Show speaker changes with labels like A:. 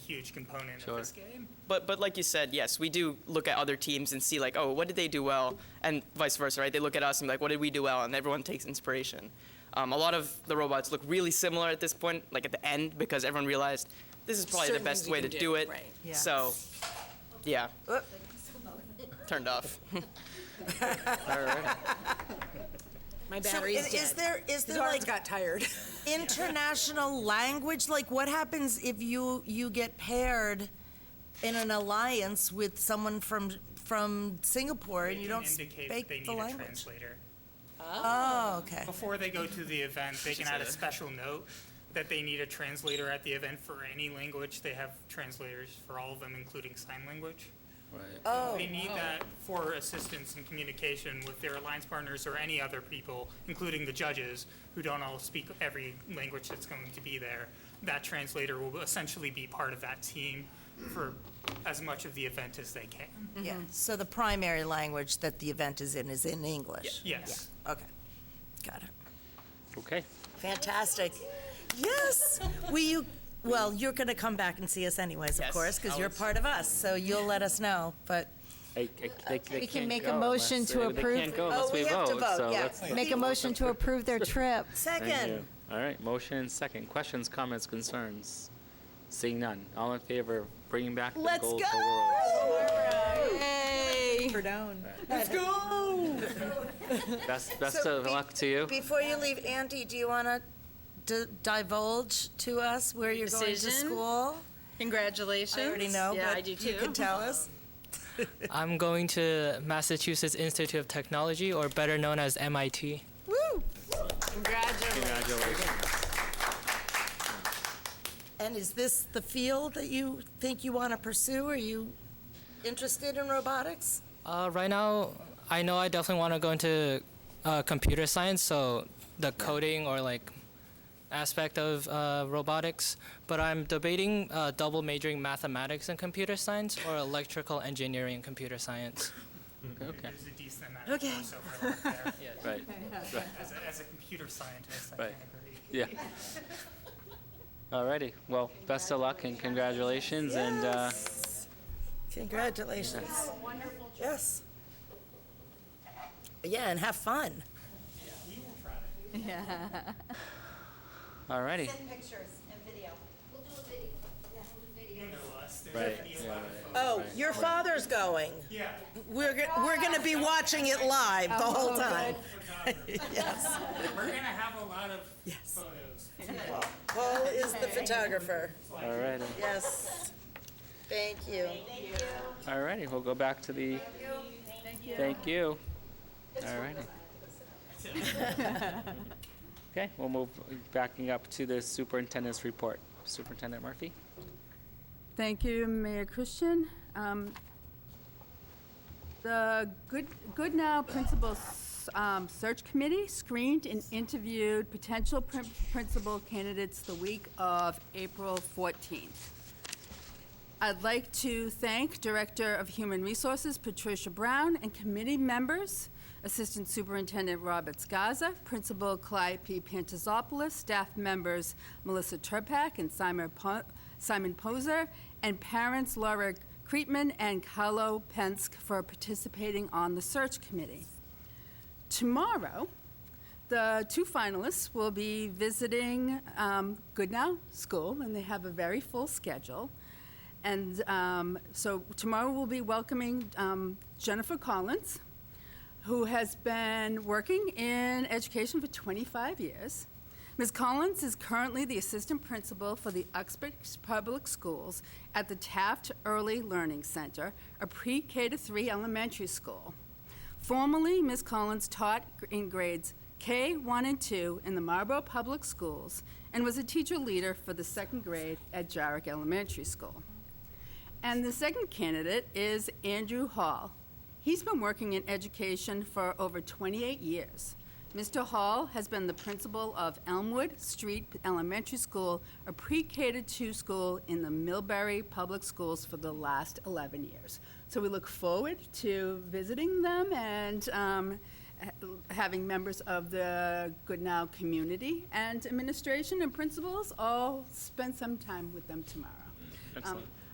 A: huge component
B: Sure.
A: of this game.
C: But but like you said, yes, we do look at other teams and see like, oh, what did they do well, and vice versa, right? They look at us and be like, what did we do well, and everyone takes inspiration. Um, a lot of the robots look really similar at this point, like at the end, because everyone realized this is probably
D: Certain
C: the best
D: things you
C: way to
D: can
C: do,
D: do,
C: it.
D: right.
E: Yeah.
C: So, yeah,
D: Oop.
C: turned off.
D: My
E: So
D: battery's
E: is- Is
D: dead.
E: there,
D: His
E: is there
D: arms
E: like
D: got tired.
E: international language? Like what happens if you, you get paired in an alliance with someone from, from Singapore
A: They
E: and you
A: can
E: don't
A: indicate
E: speak
A: that they need
E: the
A: a
E: language?
A: translator.
E: Oh, okay.
A: Before they go to the event, they can add a special note that they need a translator at the event for any language. They have translators for all of them, including sign language.
B: Right.
E: Oh,
A: They need that for assistance in communication with their alliance partners or any other people, including the judges, who don't all speak every language that's going to be there. That translator will essentially be part of that team for as much of the event as they can.
E: Yeah, so the primary language that the event is in is in English?
A: Yes.
E: Okay, got it.
B: Okay.
E: Fantastic. Yes, we, you, well, you're going to come back and see us anyways, of
C: Yes,
E: course, because you're
C: always.
E: part of us, so you'll let us know, but.
B: I- I- they- they
F: We can
B: can't
F: make a
B: go
F: motion
B: unless-
F: to
B: they-
F: approve.
B: They can't go
F: Oh,
B: unless
E: we
B: we
E: have to
B: vote,
E: vote,
B: so
E: yeah.
B: let's.
F: Make a motion to approve their trip.
B: Thank
E: Second,
B: you. All right, motion and second. Questions, comments, concerns? Seeing none. All in favor of bringing back the
F: Let's
B: gold to
F: go!
B: the world?
F: Yay!
B: Best, best
E: So
B: of
E: be-
B: luck to you.
E: before you leave, Andy, do you want to divulge to us where you're going to
D: Decision?
E: school?
D: Congratulations.
E: I already know,
D: Yeah, I
E: but
D: do
E: you
D: too.
E: can tell us.
G: I'm going to Massachusetts Institute of Technology, or better known as MIT.
E: Woo!
D: Congratulations.
B: Congratulations.
E: And is this the field that you think you want to pursue? Are you interested in robotics?
G: Uh, right now, I know I definitely want to go into uh, computer science, so the coding or like aspect of uh, robotics. But I'm debating uh, double majoring mathematics and computer science, or electrical engineering and computer science.
B: Okay,
A: There's a decent amount of course overlap there.
B: right,
A: As a, as a computer scientist, I
B: Right.
A: can agree.
B: yeah. All righty, well, best of luck and congratulations, and, uh,
E: Congratulations. Yes. Yeah, and have fun.
B: all righty.
H: pictures and video. We'll do a video. Yeah, we'll do video.
B: Right, yeah,
E: Oh, your father's going.
A: Yeah,
E: We're, go- we're going to be watching it live the whole time. Yes.
A: we're gonna have a lot of photos.
E: Paul is the photographer.
B: all righty.
E: Yes. Thank you.
B: All righty, we'll go back to the. Thank you. All righty. Okay, we'll move backing up to the superintendent's report. Superintendent Murphy?
I: Thank you, Mayor Christian. Um, The Good Good Now Principal S- um, Search Committee screened and interviewed potential prin- principal candidates the week of April 14th. I'd like to thank Director of Human Resources Patricia Brown and committee members, Assistant Superintendent Robert Gaza, Principal Clyde P. Pantazopoulos, staff members Melissa Turpak and Simon Po- Simon Poser, and parents Laura Creetman and Carlo Pensk for participating on the search committee. Tomorrow, the two finalists will be visiting um, Goodnow School, and they have a very full schedule. And um, so tomorrow we'll be welcoming um, Jennifer Collins, who has been working in education for 25 years. Ms. Collins is currently the assistant principal for the Uxbridge Public Schools at the Taft Early Learning Center, a pre-K to 3 elementary school. Formerly, Ms. Collins taught in grades K, 1, and 2 in the Marlborough Public Schools and was a teacher leader for the second grade at Jarrick Elementary School. And the second candidate is Andrew Hall. He's been working in education for over 28 years. Mr. Hall has been the principal of Elmwood Street Elementary School, a pre-K to 2 school in the Millbury Public Schools for the last 11 years. So we look forward to visiting them and um, ha- having members of the Good Now community and administration and principals all spend some time with them tomorrow. Um,
B: Excellent.